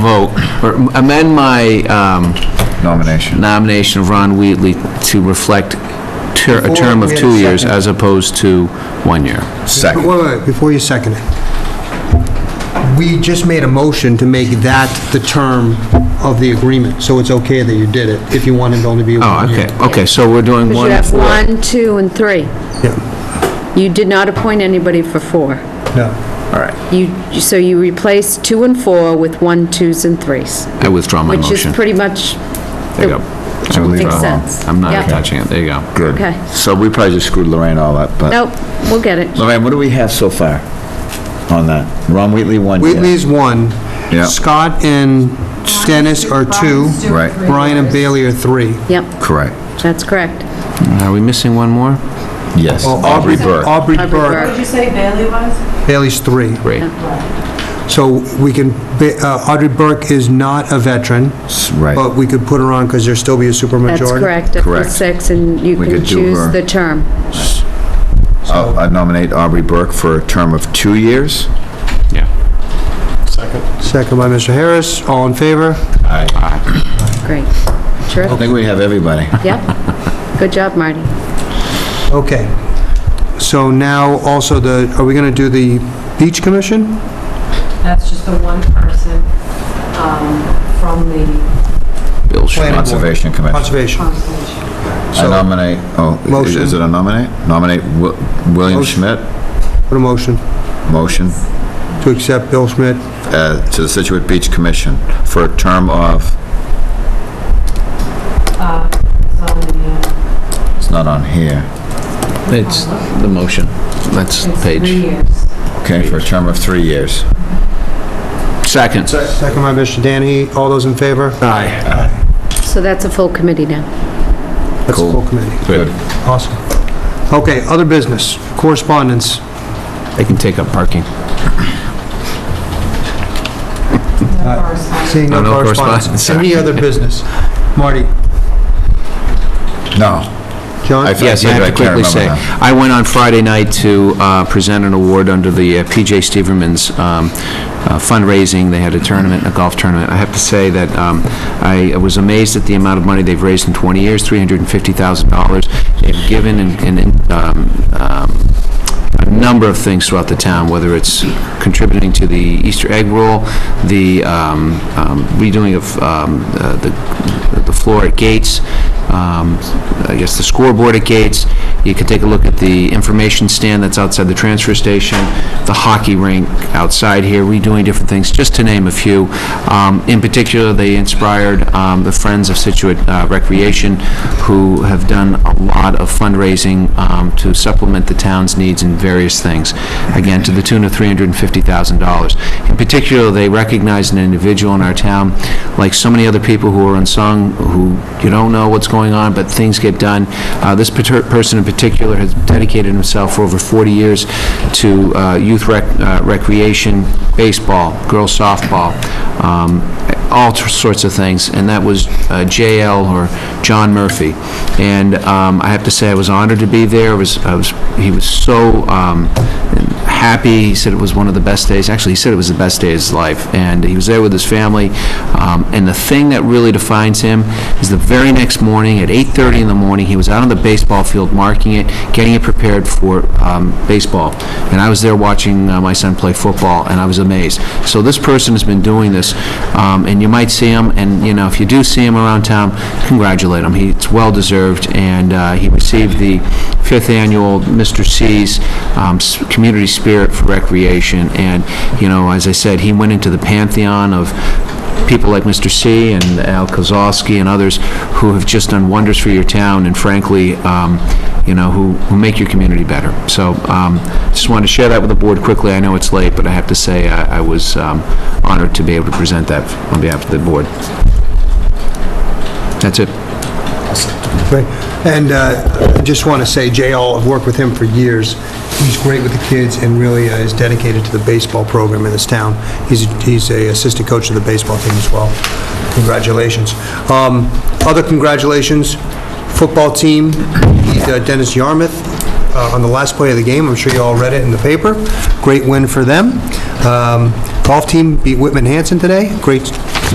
vote, or amend my um, nomination. nomination of Ron Wheatley to reflect ter- a term of Before we had two a years second. as opposed to one year. Wait, Second. wait, wait, uh, before you second it. We just made a motion to make that the term of the agreement, so it's okay that you did it, if you wanted it to only be Oh, one year. okay, okay, so we're doing Because one. you have one, two, and three. Yeah, You did not appoint anybody for four. no. All right. You, so you replaced two and four with one, twos, and threes, I withdraw my which is motion. pretty much, There you go. I So we leave it makes alone. sense. I'm not Yep. touching it, there you go. uh, Good. Okay. So we probably just screwed Lorraine all up, but. Nope, we'll get it. Lorraine, what do we have so far on that? Ron Wheatley, one yes. Wheatley's one. Yeah. Scott and Dennis are two. Right. Brian and Bailey are three. Yep, Correct. that's correct. Are we missing one more? Yes, Aubrey Burke. Oh, Aubrey Aubrey Burke. Burke. Did you say Bailey was? Bailey's three. Great. So we can, Ba- uh, Aubrey Burke is not a veteran, but Right. we could put her on because there still be a supermajority. That's correct, up to Correct. six, and you We can could do choose her. the term. I'll- I nominate Aubrey Burke for a term of two years. Yeah. Second by Mr. Harris. All in favor? Great. I Terrific, think we have everybody. yep. Good job, Marty. Okay. So now also the, are we going to do the beach commission? That's just the one person um, from the Bill Planning Schmidt. board. Conservation Commission. Conservation. conservation. I nominate, oh, i- is- is Motion. it a nominate? Nominate Wi- William Motion. Schmidt, Put a motion motion, to accept Bill Schmidt. uh, to the Situate Beach Commission for a term of, Uh, It's on the, uh, it's not on here, It's the motion. That's the it's three page. years. okay, for a term of three years. Second. Second by Mr. Danahy. All those in favor? Aye. So that's a full committee now. That's the full committee. Good. Awesome. Okay, other business, correspondence. They can take up parking. Seeing no No, no correspondence. correspondence. Any other business? Marty? No, John? I- Yes, I have to can't quickly remember say, now. I went on Friday night to uh, present an award under the uh, PJ Steverman's um, uh, fundraising. They had a tournament, a golf tournament. I have to say that um, I was amazed at the amount of money they've raised in 20 years, $350,000. They've given and- and um, um, a number of things throughout the town, whether it's contributing to the Easter egg roll, the um, um, redoing of um, uh, the the floor at Gates, um, I guess the scoreboard at Gates. You can take a look at the information stand that's outside the transfer station, the hockey rink outside here, redoing different things, just to name a few. Um, In particular, they inspired um, the Friends of Situate uh, Recreation, who have done a lot of fundraising um, to supplement the town's needs in various things, again, to the tune of $350,000. In particular, they recognized an individual in our town, like so many other people who are unsung, who you don't know what's going on, but things get done. Uh, This pater- person in particular has dedicated himself for over 40 years to uh, youth rec- uh, recreation, baseball, girls softball, um, all t- sorts of things, and that was uh, JL or John Murphy. And um, I have to say, I was honored to be there. It was, I was, he was so um, happy. He said it was one of the best days. Actually, he said it was the best day of his life. And he was there with his family. Um, and the thing that really defines him is the very next morning at 8:30 in the morning, he was out on the baseball field marking it, getting it prepared for um, baseball. And I was there watching uh, my son play football, and I was amazed. So this person has been doing this, um, and you might see him, and, you know, if you do see him around town, congratulate him. He- It's well-deserved, and uh, he received the fifth annual Mr. C's um, s- Community Spirit for Recreation, and, you know, as I said, he went into the pantheon of people like Mr. C. and Al Kozowski and others who have just done wonders for your town, and frankly, um, you know, who, who make your community better. So um, just wanted to share that with the board quickly. I know it's late, but I have to say I, I was um, honored to be able to present that on behalf of the board. That's it. Right. And uh, I just want to say, JL, I've worked with him for years. He's great with the kids and really uh, is dedicated to the baseball program in this town. He's he's a assistant coach of the baseball team as well. Congratulations. Um, Other congratulations, football team, beat, uh, Dennis Yarmouth uh, on the last play of the game. I'm sure you all read it in the paper. Great win for them. Um, Golf team beat Whitman Hanson today. Great